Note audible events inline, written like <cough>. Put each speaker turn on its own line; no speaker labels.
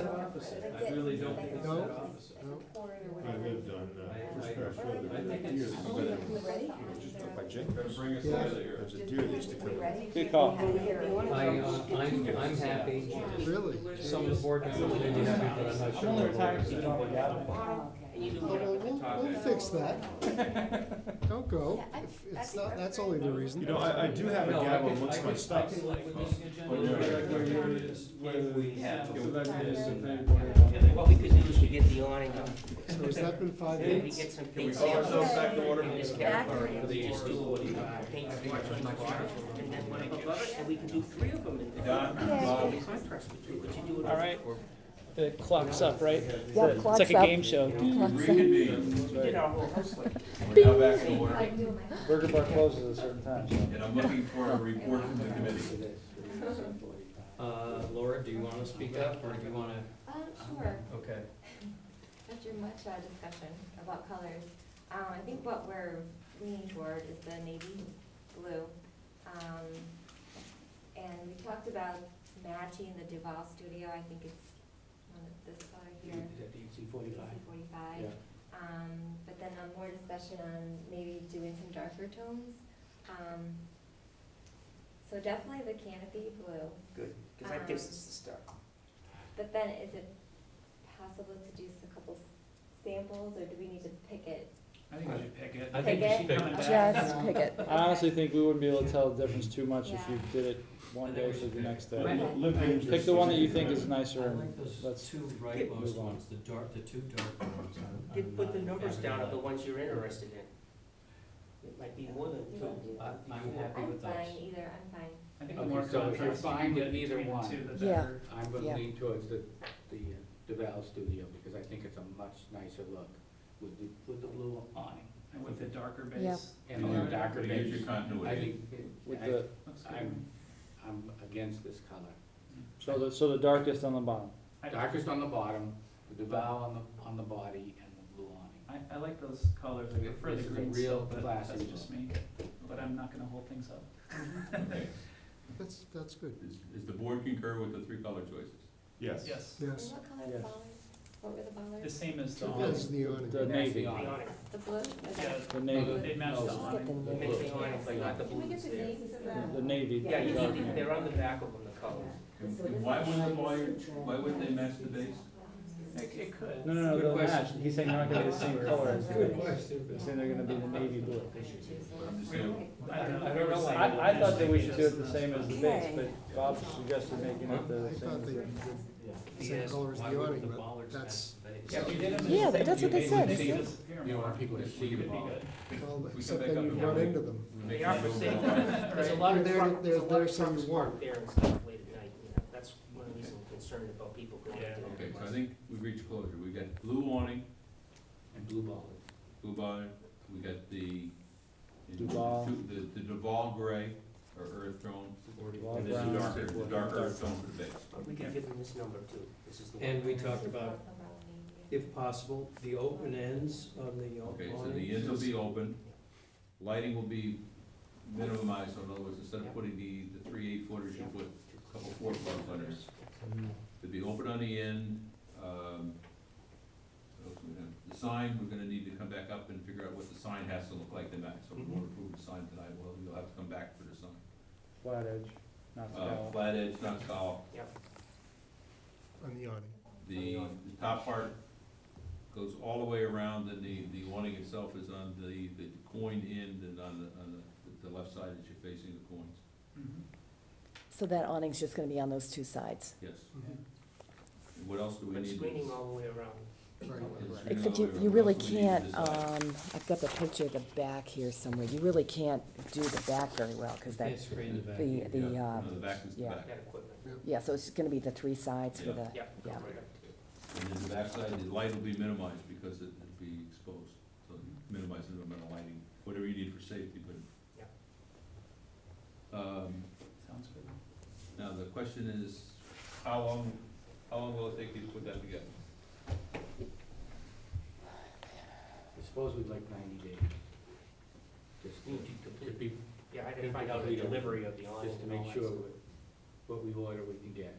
opposite, I really don't think it's
No?
that opposite.
I lived on uh, First Pass Road
I think
for
it's-
years.
Oh,
It
yeah.
was just up by Jacobs.
Bring us
Yeah.
out of here.
There's a deer that used to come. in.
Good call.
I, uh, I'm, I'm happy.
Really?
Some of the board members may be happy, but I'm not sure.
I'm only retired,
everyone
so you
is.
don't work out.
Oh, well, We'll, we'll fix that.
<laughs>
Don't go.
Yeah, I-
If
I
It's
think
not,
we're
that's
very-
only the reason.
You know, I, I do have a
No, I
gavel
can- I
amongst my
can-
stuff.
I can live with this agenda.
Oh, yeah.
Right where you're-
What we could do is we get the awning up,
So has that been five
and we
minutes?
get some
Can we
paint
call
samples.
ourselves back to order?
And just
Back.
get, and just do uh, paint samples on the bar, and then one above it, and we can do three of them in there. So the contrast between what you do and.
All right, the clock's up, right?
Yeah,
The-
clock's
It's like a
up.
game show.
Reconvene.
We did our whole house like.
Now back to order.
Burger bar closes at a certain time, so.
And I'm looking for a report from the committee.
Uh, Laura, do you wanna speak up, or do you wanna?
<laughs> Um, sure,
Okay.
after much uh, discussion about colors, um, I think what we're leaning toward is the navy blue. Um, and we talked about matching the Duval studio, I think it's one of this color here. EC forty-five. Um, but then uh, more discussion on maybe doing some darker tones. Um, so definitely the canopy blue.
Good, cause that gives us the start.
But then is it possible to do s- a couple samples, or do we need to pick it?
I think we should pick it.
I think we should pick it.
Just pick it.
I honestly think we wouldn't be able to tell the difference too much if you did it one
I think
day
we
to
should
the
pick
next
Li-
day.
Okay.
li- living
Pick the one that you think is
just-
I
nicer and
like those
let's-
two
Get
rightmost
moved on.
ones, the dark, the two dark ones. I'm- I'm
Did put the
not in
numbers
favor
down of the
that.
ones you're interested in. It might be more than
You
two.
wanna do
I-
that?
I'm happy
I'm
with those.
fine either, I'm fine.
I think
Okay,
more
so if
contrast,
you're
you
fine
can
with
get
either
between the
one.
two, the
Yeah.
better.
I'm
Yeah.
gonna lean towards the, the uh, DeVal studio, because I think it's a much nicer look with the, with the blue awning
And with the darker
Yeah.
base.
and the darker
Use your
base. I
continuity.
think, it-
with
I,
the,
Looks good.
I'm, I'm against this color.
so the, so the darkest on the bottom.
I-
Darkest on the bottom, the DeVal on the, on the body, and the blue awning.
I, I like those colors, I prefer the
This is a
green
real
stuff, but
classy
that's just me, but I'm not gonna hold things up.
Okay.
That's, that's good.
Is, is the board concur with the three color choices?
Yes.
Yes,
And
Yes.
what color
Yes.
ballers, what were the
the
ballers?
same as the
That's
awning.
the awning.
The navy,
The
The
awning.
awning.
The blue? Okay.
Yeah,
the navy,
they match the
No.
awning.
The
Mix
blue.
the awning, like not the
Can we
blue.
get the names of
the
the?
navy.
Yeah, you
dark
see,
navy.
they're on the back of them, the colors.
Why wouldn't, why, why wouldn't they match the base?
It, it could.
No, no, no,
Good
they'll
question.
match, he's saying they're not gonna be the same color as the
Good
navy. He's saying they're gonna be the navy blue.
I don't know.
I don't know.
I, I thought that we should do it the same as the base, but Bob suggested making it
I
the
thought they,
same.
same color as
Why
the
would
awning,
the
but
bollards
that's-
match the base?
Yeah, if you did 'em in
Yeah,
the
that's
same
what they
way,
said,
they
isn't it?
disappear
You don't
more.
want people to see the
It'd be
ball.
good.
well,
We come
except
back
then
up
you
and
run
down.
into them.
They are for sale. There's a lot of
They're-
trucks,
they're-
there's a lot
they're
of
some
trucks
you want.
parked there and stuff late at night, you know, that's one reason I'm concerned about people going
Yeah.
to.
Okay, so I think we've reached closure. We got blue awning,
and blue ball.
blue bonnet, we got the.
Duval.
The, the Duval gray or earth tone,
Duval
and this is
brown.
darker, the dark earth tone for the base.
We could give them this number too, this is the one.
And we talked about,
Yeah.
if possible, the open ends on the awning.
Okay, so the ends will be open, lighting will be minimized, so in other words, instead of putting the, the three eight footers, you put a couple four footers on there. It'll be open on the end, um, what else we have? the sign, we're gonna need to come back up and figure out what the sign has to look like tonight, so if we won't approve the sign tonight, well, you'll have to come back for the sign.
Flat edge, not
Uh,
scowl.
flat edge, not scowl,
On the awning.
the, the top part goes all the way around, and the, the awning itself is on the, the coin end and on the, on the, the left side that you're facing the coins,
Mhm.
So that awning's just gonna be on those two sides,
yes.
Mhm.
And what else do we
But
need?
screening all the way around.
Right.
except you, you really can't, um, I've got the picture of the back here somewhere, you really can't do the back very well, cause
Can't
that's,
screen the back.
the, the,
Yeah,
uh,
no, the back is the
yeah.
back.
That equipment,
yeah, so it's gonna be the three sides for the,
yeah, go
Yeah.
right up.
And then the backside, the light will be minimized because it will be exposed, so you minimize the amount of lighting, whatever you need for safety, but. Um,
Sounds good.
now the question is, how long, how long will it take you to put that together?
I suppose we'd like ninety days. Just
Need
to,
to
could
complete,
be,
yeah, I didn't find out the delivery of the awning
just to
and all
make
that
sure
stuff.
what- what we order we can get.